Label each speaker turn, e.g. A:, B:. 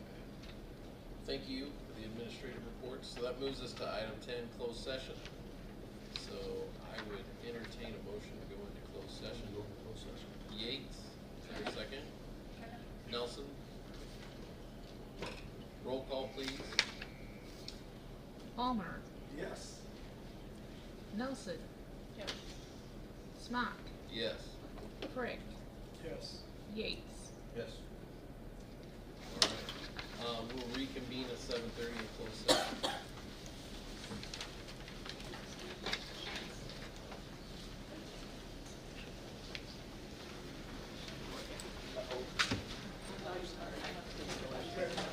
A: Thank you for the administrative report. So that moves us to item ten, closed session. So I would entertain a motion to go into closed session. Go into closed session. Yates, is there a second? Nelson? Roll call, please.
B: Palmer,
C: Yes.
B: Nelson,
D: Yes.
B: Smock,
A: Yes.
B: Frick,
C: Yes.
B: Yates.
C: Yes.
A: All right. Um, we'll reconvene at seven thirty in closed session.